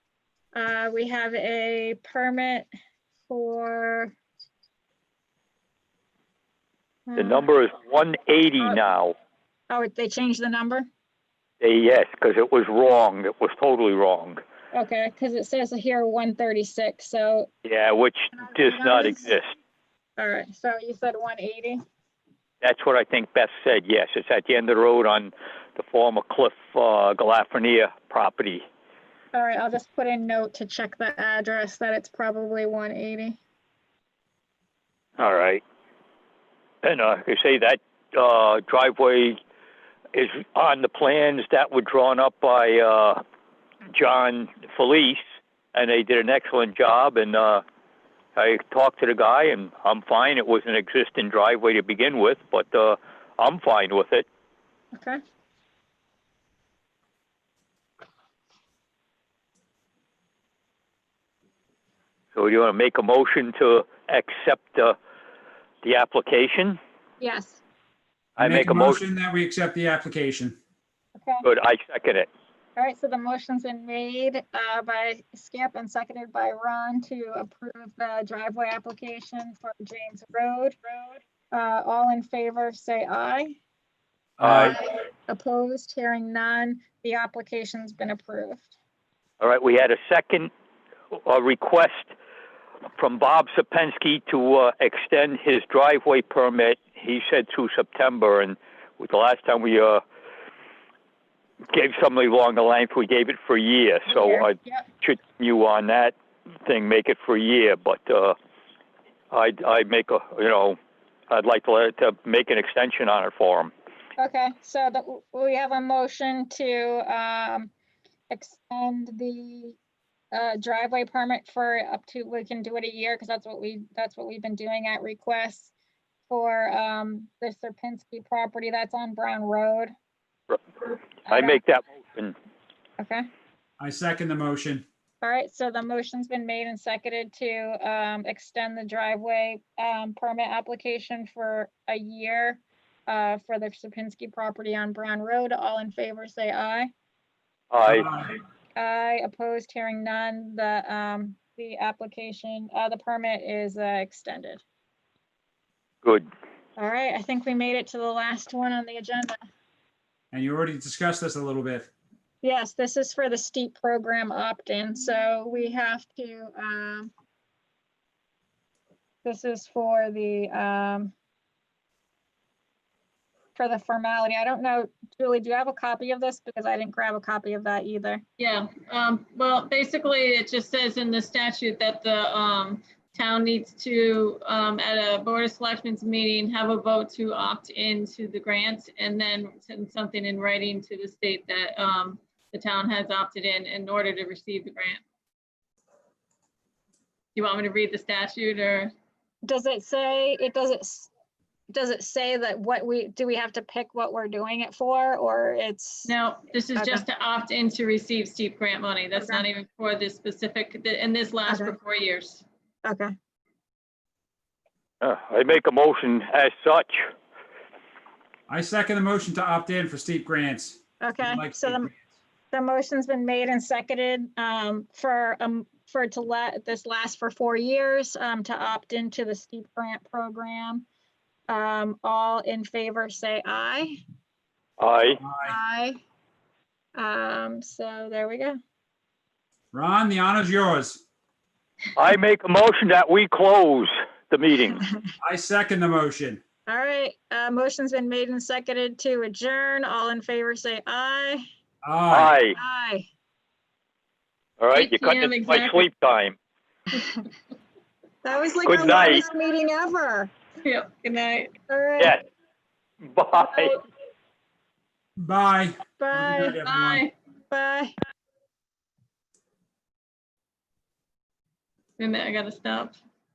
Uh, we have a permit for. The number is one eighty now. uh, Oh, they changed the number? Eh, Yes, because it was wrong. It was totally wrong. Okay, because it says here one thirty-six, so, Yeah, which does not exist. all right, so you said one eighty? That's what I think Beth said, yes. It's at the end of the road on the former Cliff uh, Galafrenia property. All right, I'll just put a note to check the address that it's probably one eighty. All right. And uh, like I say, that uh, driveway is on the plans that were drawn up by uh, John Felice, and they did an excellent job. And uh, I talked to the guy, and I'm fine. It was an existing driveway to begin with, but uh, I'm fine with it. Okay. So do you want to make a motion to accept uh, the application? Yes, I make a motion. That we accept the application. okay. Good, I second it. All right, so the motion's been made uh, by Skip and seconded by Ron to approve the driveway application for James Road. Uh, All in favor, say aye. Uh, Aye. Opposed, hearing none, the application's been approved. All right, we had a second uh, request from Bob Sapensky to uh, extend his driveway permit. He said through September, and with the last time we uh, gave somebody along the length, we gave it for a year. So I Yep, should you on that thing make it for a year, but uh, I I make a you know I'd like to let to make an extension on it for him. okay, so the- we have a motion to um, extend the uh, driveway permit for up to, we can do it a year, because that's what we, that's what we've been doing at requests for um, the Serpinski property that's on Brown Road. Right. All I right, make that motion. Uh, Okay. I second the motion. All right, so the motion's been made and seconded to um, extend the driveway um, permit application for a year uh, for the Sapinski property on Brown Road. All in favor, say aye. I Aye, opposed, hearing none. The, um, the application, uh, the permit is uh, extended. good. All right, I think we made it to the last one on the agenda. And you already discussed this a little bit. Yes, this is for the steep program opt-in, so we have to, um, this is for the, um, for the formality. I don't know, Julie, do you have a copy of this? Because I didn't grab a copy of that either. Yeah, um, well, basically, it just says in the statute that the, um, town needs to, um, at a board of selectmen's meeting, have a vote to opt into the grant and then send something in writing to the state that, um, the town has opted in in order to receive the grant. You want me to read the statute or? Does it say, it doesn't, s- does it say that what we, do we have to pick what we're doing it for, or it's? No, this is Okay. just to opt in to receive steep grant money. That's Okay. not even for this specific, and this lasts for Okay. four years. Okay, Uh, I make a motion as such. I second the motion to opt in for steep grants. okay, Like so steep the, grants. The motion's been made and seconded um, for, um, for it to let this last for four years, um, to opt into the steep grant program. Um, All in favor, say aye. I Aye. Aye. Um, So there we go. Ron, the honor's yours. I make a motion that we close the meeting. I second the motion. All right, uh, motion's been made and seconded to adjourn. All in favor, say aye. Aye. Aye. Aye. All right, Eight you cut PM into my exactly. sleep time. That was like Good the night. longest meeting ever. Yep, good night. All right, Yes. Bye. Bye. Have a good bye, night, everyone. Bye. bye. Wait a minute, I gotta stop.